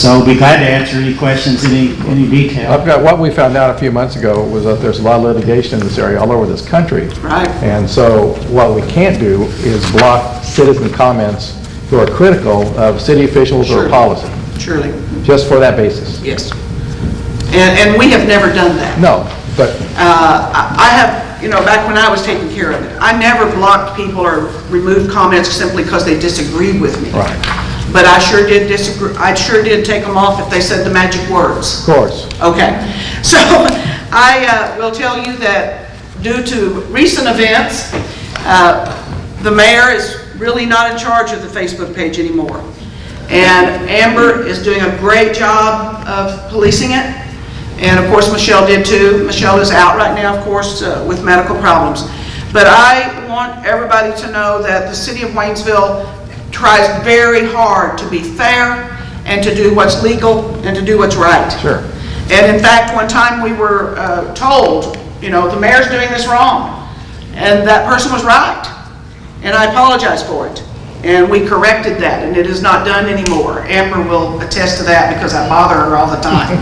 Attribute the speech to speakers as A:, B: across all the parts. A: So we'll be glad to answer any questions, any, any
B: I've
A: detail.
B: got, what we found out a few months ago was that there's a lot of litigation in this area all over this country.
C: Right.
B: And so what we can't do is block citizen comments who are critical of city officials or
C: Sure.
B: policy,
C: surely,
B: just for that basis.
C: yes. And, and we have never done that.
B: No, but
C: Uh, I I have, you know, back when I was taking care of it, I never blocked people or removed comments simply because they disagreed with me.
B: Right.
C: But I sure did disagree, I sure did take them off if they said the magic words.
B: of course,
C: Okay, so I uh, will tell you that due to recent events, uh, the mayor is really not in charge of the Facebook page anymore. And Amber is doing a great job of policing it, and of course Michelle did too. Michelle is out right now, of course, uh, with medical problems. But I want everybody to know that the city of Waynesville tries very hard to be fair and to do what's legal and to do what's right.
B: Sure.
C: And in fact, one time we were uh, told, you know, the mayor's doing this wrong, and that person was right, and I apologize for it. And we corrected that, and it is not done anymore. Amber will attest to that because I bother her all the time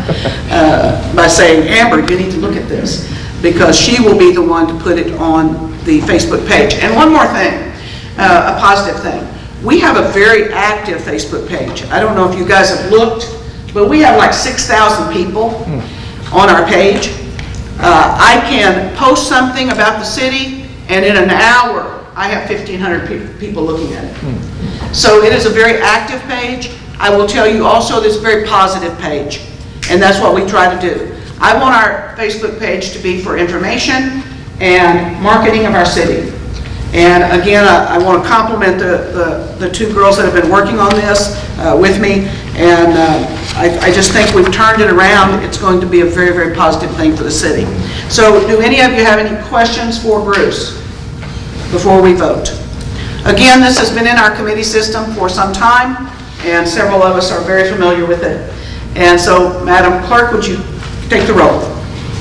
C: uh, by saying, Amber, you need to look at this, because she will be the one to put it on the Facebook page. And one more thing, uh, a positive thing. We have a very active Facebook page. I don't know if you guys have looked, but we have like 6,000 people on our page. Uh, I can post something about the city, and in an hour, I have 1,500 pe- people looking at it. So it is a very active page. I will tell you also, this very positive page, and that's what we try to do. I want our Facebook page to be for information and marketing of our city. And again, I I want to compliment the, the the two girls that have been working on this uh, with me, and uh, I I just think we've turned it around. It's going to be a very, very positive thing for the city. So do any of you have any questions for Bruce before we vote? Again, this has been in our committee system for some time, and several of us are very familiar with it. And so, Madam Clerk, would you take the roll?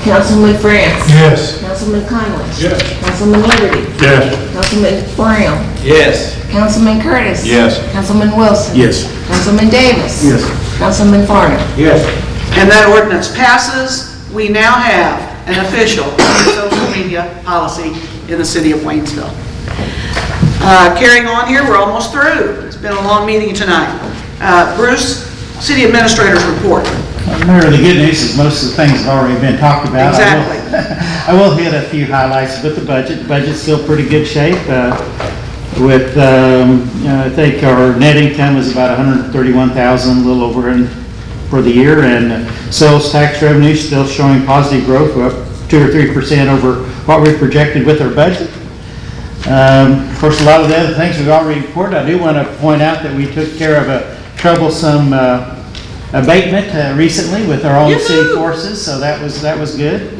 D: Councilman France.
E: Yes.
D: Councilman Conlon.
E: Yes.
D: Councilman Liberty.
E: Yes.
D: Councilman Brown.
E: Yes.
D: Councilman Curtis.
E: Yes.
D: Councilman Wilson.
E: Yes.
D: Councilman Davis.
E: Yes.
D: Councilman Farnum.
E: Yes.
C: And that ordinance passes. We now have an official social media policy in the city of Waynesville. Uh, Carrying on here, we're almost through. It's been a long meeting tonight. Uh, Bruce, city administrator's report.
A: Mayor, the good news is most of the things have already been talked about. I will- I will hit a few highlights with the budget. Budget's still pretty good shape. uh, With, um, you know, I think our net income is about 131,000, a little over in- for the year. And sales tax revenue still showing positive growth, we're up 2 or 3% over what we projected with our budget. Um, Of course, a lot of the other things we've already reported, I do want to point out that we took care of a troublesome uh, abatement uh, recently with our own city
C: Yoo-hoo!
A: forces, so that was, that was good.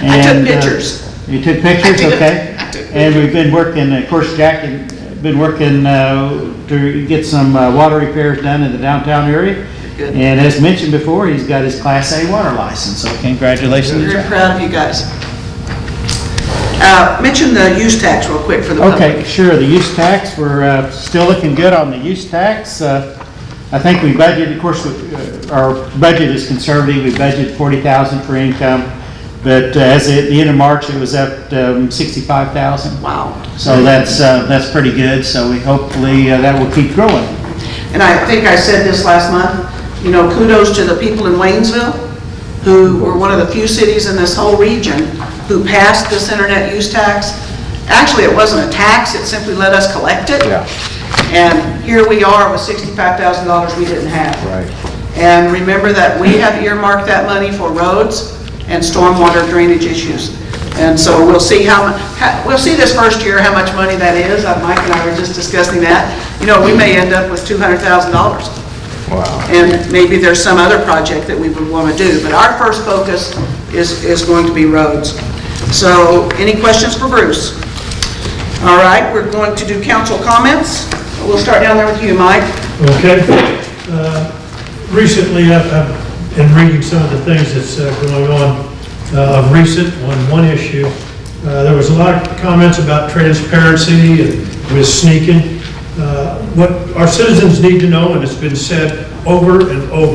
C: I took
A: And, uh,
C: pictures.
A: You took pictures,
C: I did.
A: okay.
C: I took
A: And we've been working, of course, Jack had been working uh, to get some uh, water repairs done in the downtown area.
C: Good.
A: And as mentioned before, he's got his Class A water license, so congratulations,
C: Very
A: Jack.
C: proud of you guys. Uh, Mention the use tax real quick for the public.
A: Okay, sure, the use tax, we're uh, still looking good on the use tax. Uh, I think we budgeted, of course, with, uh, our budget is conservative, we budgeted 40,000 for income, but uh, as at the end of March, it was up um, 65,000.
C: Wow.
A: So that's, uh, that's pretty good, so we hopefully, uh, that will keep growing.
C: and I think I said this last month, you know, kudos to the people in Waynesville, who were one of the few cities in this whole region who passed this internet use tax. Actually, it wasn't a tax, it simply let us collect it.
B: Yeah.
C: And here we are with sixty-five thousand dollars we didn't have.
B: Right.
C: And remember that we have earmarked that money for roads and stormwater drainage issues. And so we'll see how, mu- how- we'll see this first year how much money that is. Uh, Mike and I were just discussing that. You know, we may end up with $200,000.
B: wow.
C: And maybe there's some other project that we would want to do. But our first focus is, is going to be roads. So any questions for Bruce? All right, we're going to do council comments. We'll start down there with you, Mike.
E: Okay. Uh, Recently, I've- I've been reading some of the things that's uh, going on uh, of recent on one issue. Uh, There was a lot of comments about transparency and with sneaking. Uh, What our citizens need to know, and it's been said over and over,